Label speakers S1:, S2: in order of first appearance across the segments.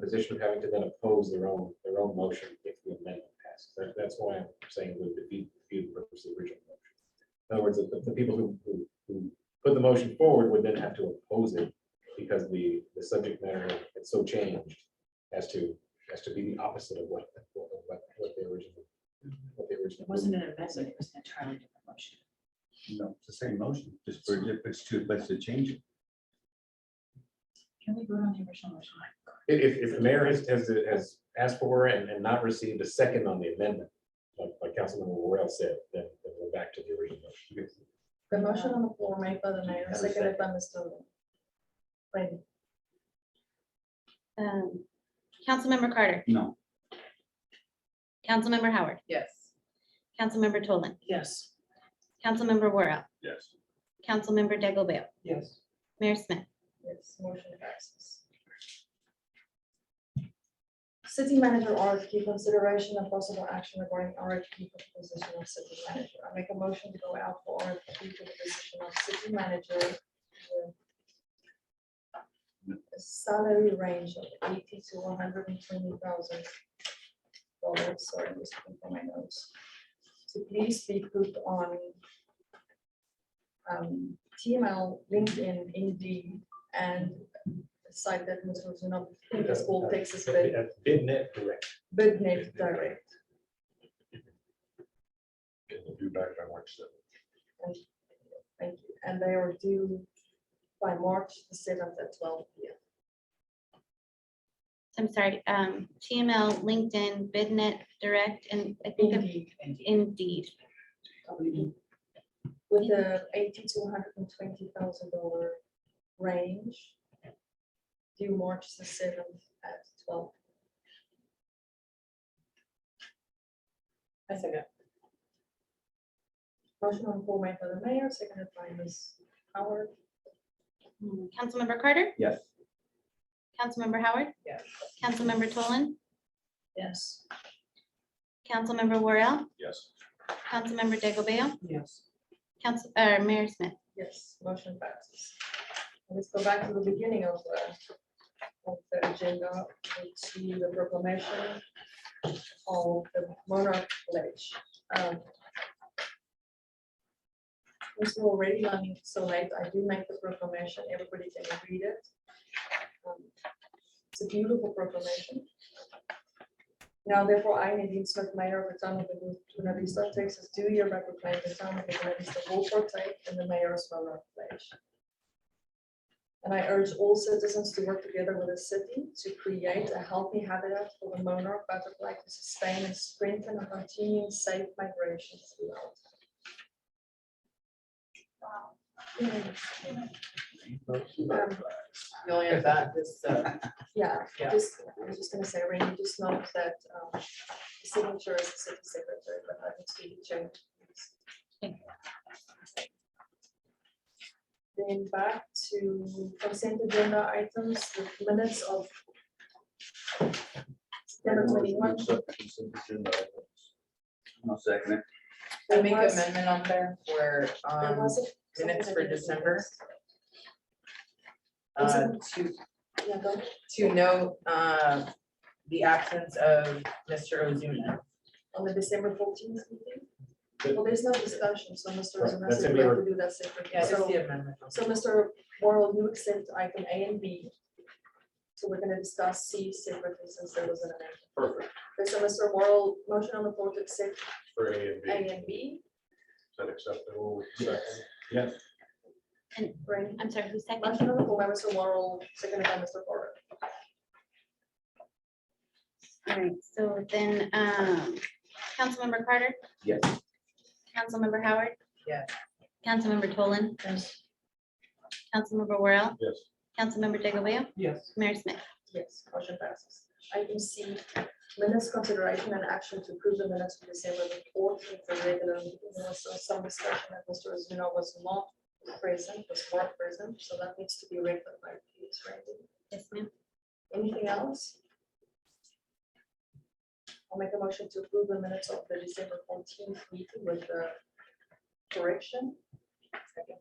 S1: position of having to then oppose their own, their own motion if the amendment passes. That- That's why I'm saying would defeat defeat the purpose of the original motion. In other words, the, the people who, who, who put the motion forward would then have to oppose it because the, the subject matter had so changed as to, as to be the opposite of what, what, what- what they originally, what they originally.
S2: It wasn't an amendment, it was an entirely different motion.
S3: No, it's the same motion, just for difference to, but to change it.
S2: Can we vote on the original motion?
S1: If, if- if the mayor has, has, has asked for and, and not received a second on the amendment, like, like Councilman Royal said, then, then we're back to the original. motion.
S4: The motion on the floor made by the mayor,
S3: Have a
S4: seconded by Mr. Lane.
S5: Um, Councilmember Carter,
S3: No,
S5: Councilmember Howard,
S4: Yes.
S5: Councilmember Tolan,
S2: Yes.
S5: Councilmember Worrell,
S3: yes.
S5: Councilmember Degglebale,
S2: Yes.
S5: Mayor Smith.
S4: Yes, motion passes. City manager RFQ consideration and possible action regarding RFQ for the position of city manager. I make a motion to go out for RFQ for the position of city manager. with a Salary range of eighty to one hundred and twenty thousand dollars, sorry, I'm just looking for my notes. To please be put on um, TML, LinkedIn, Indeed, and a site that was written up in the school Texas Bid,
S1: Uh, Bid net direct.
S4: BidNet Direct.
S3: You back, I watched it.
S4: Thank you. And they are due by March the seventh at twelve P M.
S5: I'm sorry, um, TML, LinkedIn, BidNet, Direct, and I think of Indeed.
S4: With the
S2: Mm-hmm.
S4: eighty to hundred and twenty thousand dollar range. Due March the seventh at twelve.
S2: I second.
S4: Motion on the floor made by the mayor, seconded by Ms. Howard.
S5: Mm, Councilmember Carter,
S3: Yes.
S5: Councilmember Howard,
S2: Yes.
S5: Councilmember Tolan,
S4: Yes.
S5: Councilmember Worrell,
S3: Yes.
S5: Councilmember Degglebale,
S2: Yes.
S5: Council, uh, Mayor Smith.
S4: Yes, motion passes. Let's go back to the beginning of the, of the agenda, to the proclamation of the monarch pledge. Um, Since we're already running so late, I do make the proclamation, everybody can read it. Um, It's a beautiful proclamation. Now therefore, I, Nadine Smith, Mayor of the Town of Laguna Vista, Texas, do hereby proclaim the Town of Laguna Vista will protect and the Mayor as well of pledge. And I urge all citizens to work together with the city to create a healthy habitat for the monarch butterfly to sustain and strengthen and continue safe migration throughout. Um,
S6: The only of that is, uh,
S4: Yeah,
S6: Yeah.
S4: just, I was just gonna say, Randy, just note that um, the signature is the city secretary, but I can see the change. Then back to consent agenda items, the minutes of September twenty-one.
S3: I'll second it.
S6: I make
S4: There was-
S6: amendment on there for,
S4: there
S6: um,
S4: was a- something
S6: minutes
S4: that
S6: for
S4: I didn't
S6: December.
S4: notice.
S6: uh, to,
S4: Yeah, go ahead.
S6: to note, uh, the absence of Mr. Ozuna.
S4: on the December fourteenth meeting.
S1: But-
S4: Well, there's no discussion, so Mr.
S1: Right,
S4: Ozuna
S1: that's
S4: said
S1: in
S4: we have
S1: your-
S4: to do that separately.
S6: Yeah,
S4: So-
S6: just the amendment.
S4: So Mr. Morrell, you accept item A and B. So we're gonna discuss C separately since there was an amendment.
S3: Perfect.
S4: Okay, so Mr. Morrell, motion on the floor to accept
S3: For A and
S4: A and B.
S3: that acceptable?
S4: Right.
S5: I'm sorry, who's second?
S4: Motion on the floor by Mr. Morrell, seconded by Mr. Porter.
S5: All right, so then, um, Councilmember Carter,
S3: Yes.
S5: Councilmember Howard,
S6: Yes.
S5: Councilmember Tolan,
S4: Yes.
S5: Councilmember Worrell,
S3: Yes.
S5: Councilmember Degglebale,
S6: Yes.
S5: Mayor Smith.
S4: Yes, motion passes. Item C, minutes consideration and action to approve the minutes for December the fourteenth, the regular meeting. There was some discussion that Mr. Azuna was not present, was not present, so that needs to be rectified, please, Randy.
S5: Yes, ma'am.
S4: Anything else? I'll make a motion to approve the minutes of the December fourteenth meeting with the correction. Second.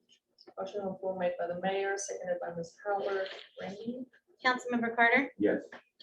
S4: Motion on the floor made by the mayor, seconded by Ms. Howard, Randy,
S5: Councilmember Carter,
S3: Yes.